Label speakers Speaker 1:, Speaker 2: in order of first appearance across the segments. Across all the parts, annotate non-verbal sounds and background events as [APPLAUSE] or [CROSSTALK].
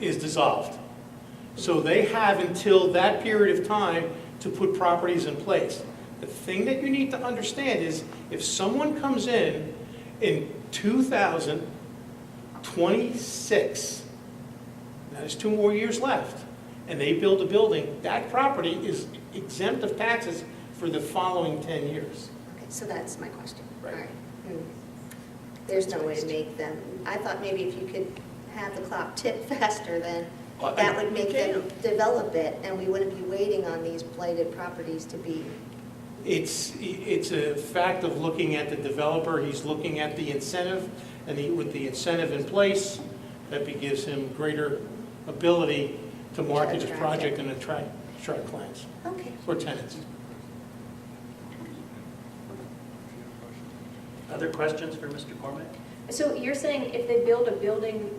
Speaker 1: is dissolved. So they have until that period of time to put properties in place. The thing that you need to understand is, if someone comes in in 2026, now there's two more years left, and they build a building, that property is exempt of taxes for the following 10 years.
Speaker 2: Okay, so that's my question.
Speaker 1: Right.
Speaker 2: All Hmm. There's no way to make them, I thought maybe if you could have the clock tick [LAUGHS] faster, then
Speaker 1: Well, I-
Speaker 2: that would make them develop it, and we wouldn't be waiting on these blighted properties to be,
Speaker 1: It's, it's a fact of looking at the developer, he's looking at the incentive, and he- with the incentive in place, that be- gives him greater ability to market his project and attract, attract clients
Speaker 2: okay.
Speaker 1: or tenants.
Speaker 3: Other questions for Mr. Cormack?
Speaker 4: So you're saying if they build a building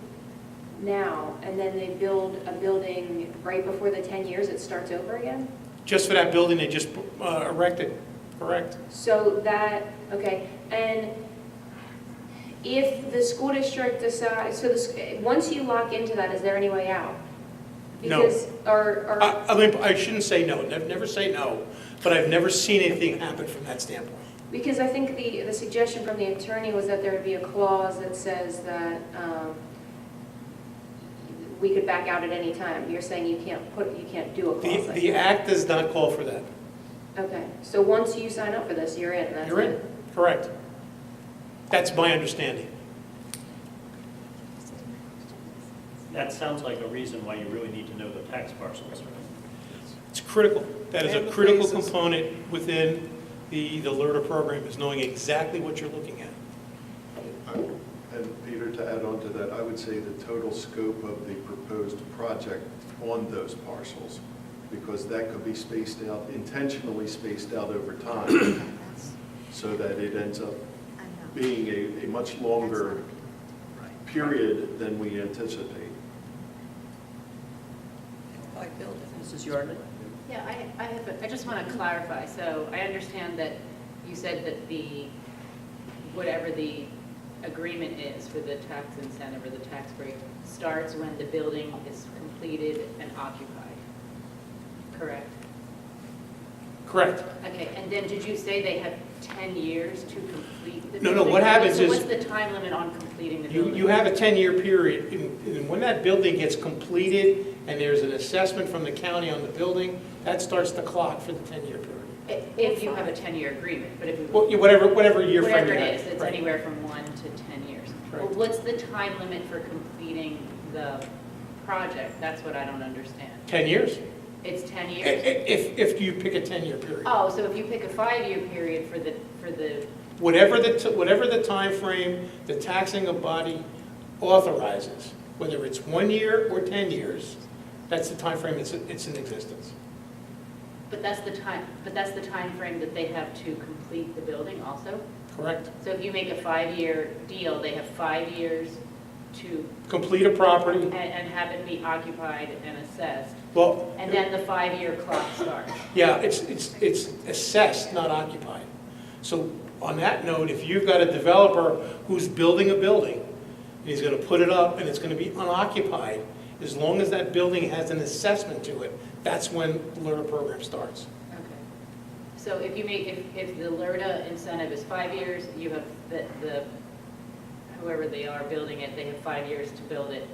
Speaker 4: now, and then they build a building right before the 10 years, it starts over again?
Speaker 1: Just for that building they just uh, erected, correct?
Speaker 4: So that, okay, and if the school district decides, so this, once you lock into that, is there any way out?
Speaker 1: No. Uh,
Speaker 4: Because, or, or,
Speaker 1: I, I mean, I shouldn't say no, I've never say no, but I've never seen anything happen from that standpoint.
Speaker 4: because I think the, the suggestion from the attorney was that there would be a clause that says that, um, we could back out at any time. You're saying you can't put, you can't do a clause like
Speaker 1: The,
Speaker 4: that.
Speaker 1: the act does not call for that.
Speaker 4: Okay, so once you sign up for this, you're in, that's it?
Speaker 1: You're in, correct. That's my understanding.
Speaker 3: That sounds like a reason why you really need to know the tax parcels, right?
Speaker 1: It's critical. That is
Speaker 5: And
Speaker 1: a
Speaker 5: the
Speaker 1: critical
Speaker 5: phases.
Speaker 1: component within the, the LERTA program, is knowing exactly what you're looking at.
Speaker 6: And Peter, to add on to that, I would say the total scope of the proposed project on those parcels, because that could be spaced out, intentionally spaced out over time, [COUGHS]
Speaker 2: Yeah, that's-
Speaker 6: so that it ends up
Speaker 2: I'm not-
Speaker 6: being a, a much
Speaker 2: that's
Speaker 6: longer
Speaker 2: not-
Speaker 6: period than we anticipate.
Speaker 5: By building.
Speaker 3: Mrs. Yardley?
Speaker 7: Yeah, I, I have, a- I just want to clarify, so I understand that you said that the, whatever the agreement is for the tax incentive or the tax break starts when the building is completed and occupied, correct?
Speaker 1: Correct.
Speaker 7: Okay, and then did you say they have 10 years to complete the building?
Speaker 1: No, no, what happens
Speaker 7: So
Speaker 1: is-
Speaker 7: what's the time limit on completing the
Speaker 1: You,
Speaker 7: building?
Speaker 1: you have a 10-year period, and and when that building gets completed and there's an assessment from the county on the building, that starts the clock for the 10-year period.
Speaker 7: I- If you have a 10-year agreement, but if we.
Speaker 1: Well, you- Whatever, whatever year frame
Speaker 7: Whatever
Speaker 1: you
Speaker 7: it
Speaker 1: have.
Speaker 7: is, it's
Speaker 1: Right.
Speaker 7: anywhere from one to 10 years. Well,
Speaker 1: Correct.
Speaker 7: What's the time limit for completing the project? That's what I don't understand.
Speaker 1: 10 years?
Speaker 7: It's 10
Speaker 1: I- i-
Speaker 7: years?
Speaker 1: If, if you pick a 10-year period.
Speaker 7: Oh, so if you pick a five-year period for the, for the,
Speaker 1: Whatever the, t- whatever the timeframe the taxing body authorizes, whether it's one year or 10 years, that's the timeframe it's, it's in existence.
Speaker 7: but that's the time, but that's the time frame that they have to complete the building also?
Speaker 1: Correct?
Speaker 7: So if you make a five-year deal, they have five years to,
Speaker 1: Complete a property,
Speaker 7: and and have it be occupied and assessed,
Speaker 1: well,
Speaker 7: and then the five-year clock starts.
Speaker 1: yeah, it's, it's, it's assessed, not occupied. So on that note, if you've got a developer who's building a building, and he's gonna put it up and it's gonna be unoccupied, as long as that building has an assessment to it, that's when the learner program starts.
Speaker 7: Okay. So if you make, if, if the LERTA incentive is five years, you have the, the, whoever they are building it, they have five years to build it.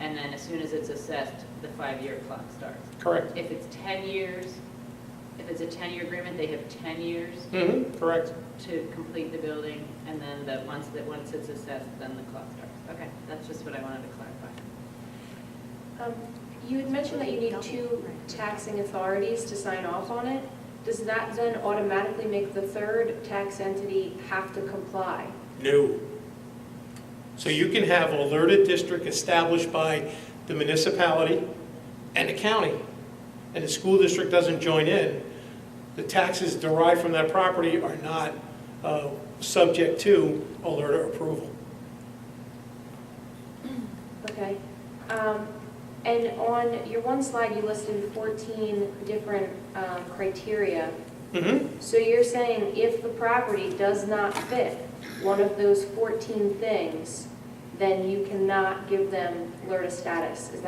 Speaker 7: And then as soon as it's assessed, the five-year clock starts.
Speaker 1: Correct?
Speaker 7: If it's 10 years, if it's a 10-year agreement, they have 10 years
Speaker 1: Mm-hmm, correct.
Speaker 7: to complete the building. And then the, once, that, once it's assessed, then the clock starts. Okay, that's just what I wanted to clarify.
Speaker 4: Um, You had mentioned that you need two taxing authorities to sign off on it. Does that then automatically make the third tax entity have to comply?
Speaker 1: No. So you can have a alerted district established by the municipality and the county, and the school district doesn't join in, the taxes derived from that property are not uh, subject to alert approval.
Speaker 4: Okay. Um, And on your one slide, you listed 14 different um, criteria.
Speaker 1: Mhm.
Speaker 4: So you're saying if the property does not fit one of those 14 things, then you cannot give them LERTA status? Is